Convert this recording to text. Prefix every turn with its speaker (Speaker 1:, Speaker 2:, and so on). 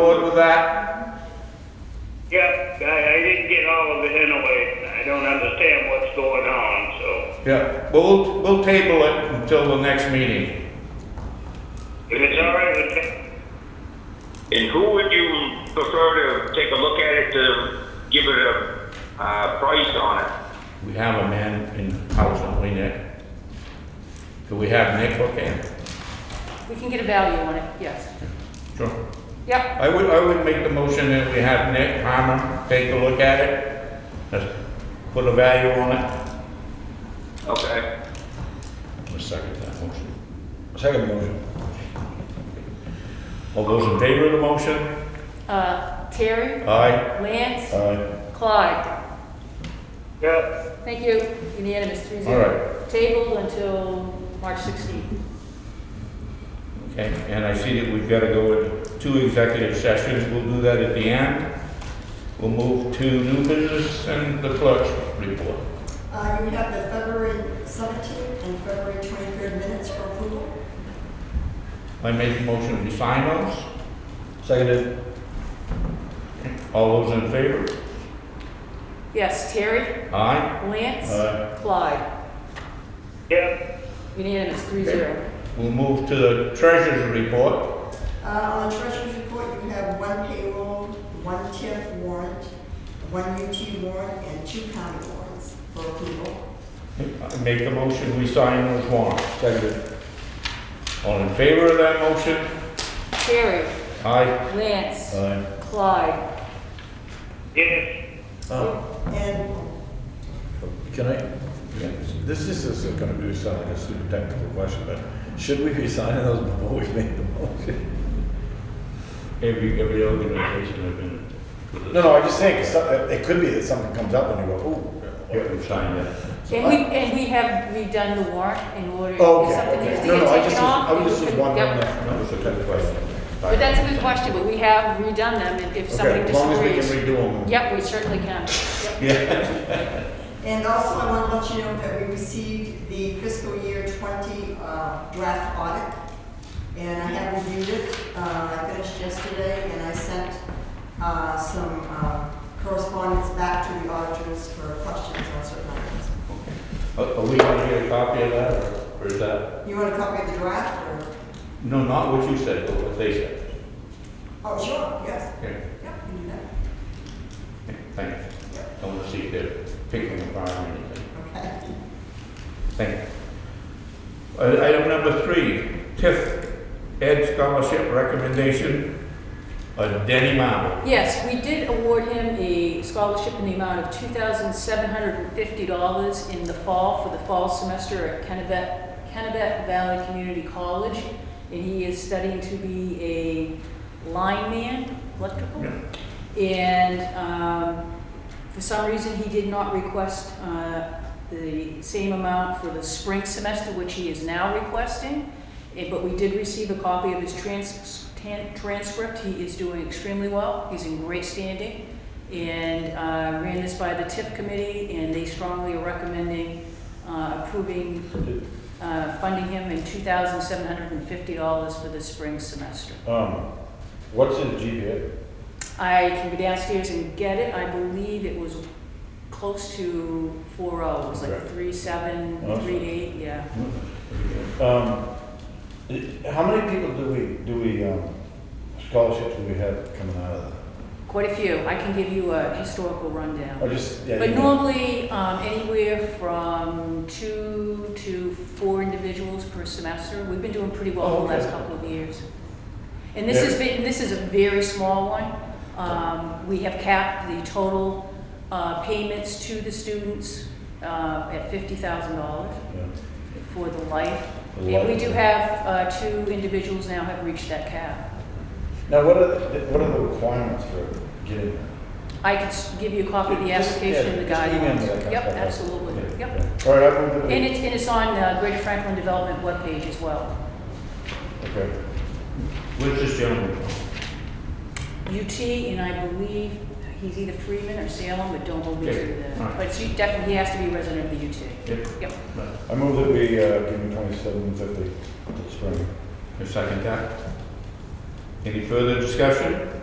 Speaker 1: with that?
Speaker 2: Yep, I, I didn't get all of it anyway. I don't understand what's going on, so.
Speaker 1: Yeah, we'll, we'll table it until the next meeting.
Speaker 2: If it's all right with you,
Speaker 3: And who would you prefer to take a look at it to give it a, uh, price on it?
Speaker 1: We have a man in house, don't we, Nick? Do we have Nick? Okay.
Speaker 4: We can get a value on it, yes.
Speaker 1: Sure.
Speaker 4: Yep,
Speaker 1: I would, I would make the motion that we have Nick Palmer take a look at it. Let's put a value on it.
Speaker 3: Okay.
Speaker 1: I'll second that motion.
Speaker 5: Second motion.
Speaker 1: All those in favor of the motion?
Speaker 4: uh, Terry,
Speaker 1: Aye.
Speaker 4: Lance,
Speaker 1: Aye.
Speaker 4: Clyde.
Speaker 2: yep,
Speaker 4: Thank you, unanimous, three
Speaker 1: All
Speaker 4: zero. Tabled until March sixteenth.
Speaker 1: Okay, and I see that we've got to go with two executive sessions. We'll do that at the end. We'll move to new business and the clerk's report.
Speaker 6: Uh, you have the February seventeenth and February twenty-third minutes for approval.
Speaker 1: I make a motion to sign those.
Speaker 5: Seconded.
Speaker 1: All those in favor?
Speaker 4: Yes, Terry,
Speaker 1: Aye.
Speaker 4: Lance,
Speaker 1: Aye.
Speaker 4: Clyde,
Speaker 2: yep.
Speaker 4: unanimous, three zero.
Speaker 1: We'll move to the treasurer's report.
Speaker 6: Uh, on the treasurer's report, you have one payroll, one TIF warrant, one UT warrant, and two county warrants for approval.
Speaker 1: I make a motion, we sign those warrants.
Speaker 5: Seconded.
Speaker 1: All in favor of that motion?
Speaker 4: Terry,
Speaker 1: Aye.
Speaker 4: Lance,
Speaker 1: Aye.
Speaker 4: Clyde.
Speaker 2: Yes,
Speaker 5: Oh,
Speaker 6: And,
Speaker 5: can I, this is, this is gonna be, sound like a super technical question, but should we be signing those before we make the motion?
Speaker 1: Every, every organization has been.
Speaker 5: No, no, I just think, it's some- it could be that something comes up and you go,
Speaker 1: Yeah,
Speaker 5: ooh.
Speaker 1: we signed that.
Speaker 4: And we, and we have redone the warrant in order, if
Speaker 5: Oh, okay,
Speaker 4: something needs to
Speaker 5: okay. No, no, I
Speaker 4: get
Speaker 5: just, was-
Speaker 4: taken off.
Speaker 5: I was
Speaker 4: we
Speaker 5: just
Speaker 4: can- yep.
Speaker 5: wondering. if-
Speaker 1: That was a good question.
Speaker 4: But that's a good question, but we have redone them, and if
Speaker 5: Okay,
Speaker 4: somebody
Speaker 5: as long as we
Speaker 4: disagrees.
Speaker 5: can redo them.
Speaker 4: Yep, we certainly can.
Speaker 6: and also I want to let you know that we received the fiscal year twenty, uh, draft audit. And I have reviewed it, uh, I finished yesterday, and I sent, uh, some, uh, correspondence back to the auditors for questions on certain items.
Speaker 1: Are are we gonna get a copy of that, or- or is that?
Speaker 6: You want a copy of the draft, or?
Speaker 1: No, not what you said, but what they said.
Speaker 6: Oh, sure, yes,
Speaker 1: Okay,
Speaker 6: yeah, we can do
Speaker 1: thanks. I wanna see if they're picking apart or anything.
Speaker 6: that, okay.
Speaker 1: Thank you. Uh, Item number three, TIF Ed Scholarship Recommendation, uh, Denny Marble.
Speaker 4: Yes, we did award him a scholarship in the amount of two thousand seven hundred and fifty dollars in the fall for the fall semester at Kennebec, Kennebec Valley Community College. And he is studying to be a lineman, electrical. And, um, for some reason, he did not request, uh, the same amount for the spring semester, which he is now requesting. Eh, But we did receive a copy of his trans, tan- transcript. He is doing extremely well. He's in great standing. And, uh, ran this by the TIP committee and they strongly are recommending, uh, approving, uh, funding him in two thousand seven hundred and fifty dollars for the spring semester.
Speaker 5: Um, what's his GPA?
Speaker 4: I can go downstairs and get it. I believe it was close to four oh, it was like
Speaker 5: Okay.
Speaker 4: three seven,
Speaker 5: Awesome.
Speaker 4: three eight, yeah.
Speaker 5: Um, i- how many people do we, do we, um, scholarships do we have coming out of that?
Speaker 4: Quite a few. I can give you a historical rundown.
Speaker 5: Or just, yeah.
Speaker 4: But
Speaker 5: you know.
Speaker 4: normally, um, anywhere from two to four individuals per semester. We've been doing pretty well
Speaker 5: Oh,
Speaker 4: the last
Speaker 5: okay.
Speaker 4: couple of years. And this
Speaker 5: Yeah.
Speaker 4: has been, this is a very small one. Um, we have capped the total, uh, payments to the students, uh, at fifty thousand dollars.
Speaker 5: Yeah.
Speaker 4: for the life.
Speaker 5: The
Speaker 4: And
Speaker 5: life.
Speaker 4: we do have, uh, two individuals now have reached that cap.
Speaker 5: Now, what are, the- what are the requirements for getting that?
Speaker 4: I could s- give you a copy of the
Speaker 5: Just-
Speaker 4: application and the
Speaker 5: yeah, just email me that
Speaker 4: guidelines.
Speaker 5: kind of
Speaker 4: Yep,
Speaker 5: stuff.
Speaker 4: absolutely, yep.
Speaker 5: All right, I move that we-
Speaker 4: And it's, and it's on the Greater Franklin Development webpage as well.
Speaker 5: Okay.
Speaker 1: Where's this gentleman from?
Speaker 4: UT, and I believe he's either Freeman or Salem, but don't hold me
Speaker 1: Okay,
Speaker 4: to
Speaker 1: all right.
Speaker 4: that. But he definitely, he has to be a resident of the UT.
Speaker 1: Yep.
Speaker 4: Yep.
Speaker 5: I move that we, uh, give him twenty-seven fifty for the spring.
Speaker 1: I second that. Any further discussion?